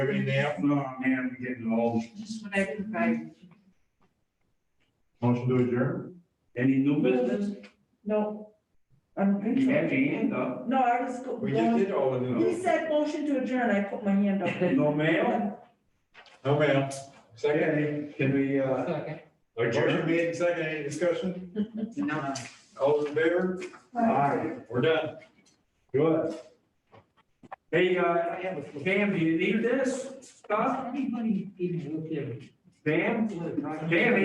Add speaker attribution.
Speaker 1: Have anything else?
Speaker 2: No, man, I'm getting old.
Speaker 3: Just what I provide.
Speaker 1: Motion to adjourn?
Speaker 2: Any new business?
Speaker 4: No, I don't think
Speaker 2: You
Speaker 4: so.
Speaker 2: had your hand up.
Speaker 4: No, I was go-
Speaker 1: We just
Speaker 4: going,
Speaker 1: did all the
Speaker 4: he
Speaker 1: new.
Speaker 4: said motion to adjourn, I put my hand up.
Speaker 2: No mail?
Speaker 1: No, ma'am. Second,
Speaker 2: Can we, uh,
Speaker 1: motion made, and second, any discussion? All in favor?
Speaker 2: Aye.
Speaker 1: We're done. Good.
Speaker 2: hey, uh, I have a, Pam, do you need this stuff?
Speaker 5: Anybody even look at it?
Speaker 2: Pam?
Speaker 5: Look, right?
Speaker 2: Pam,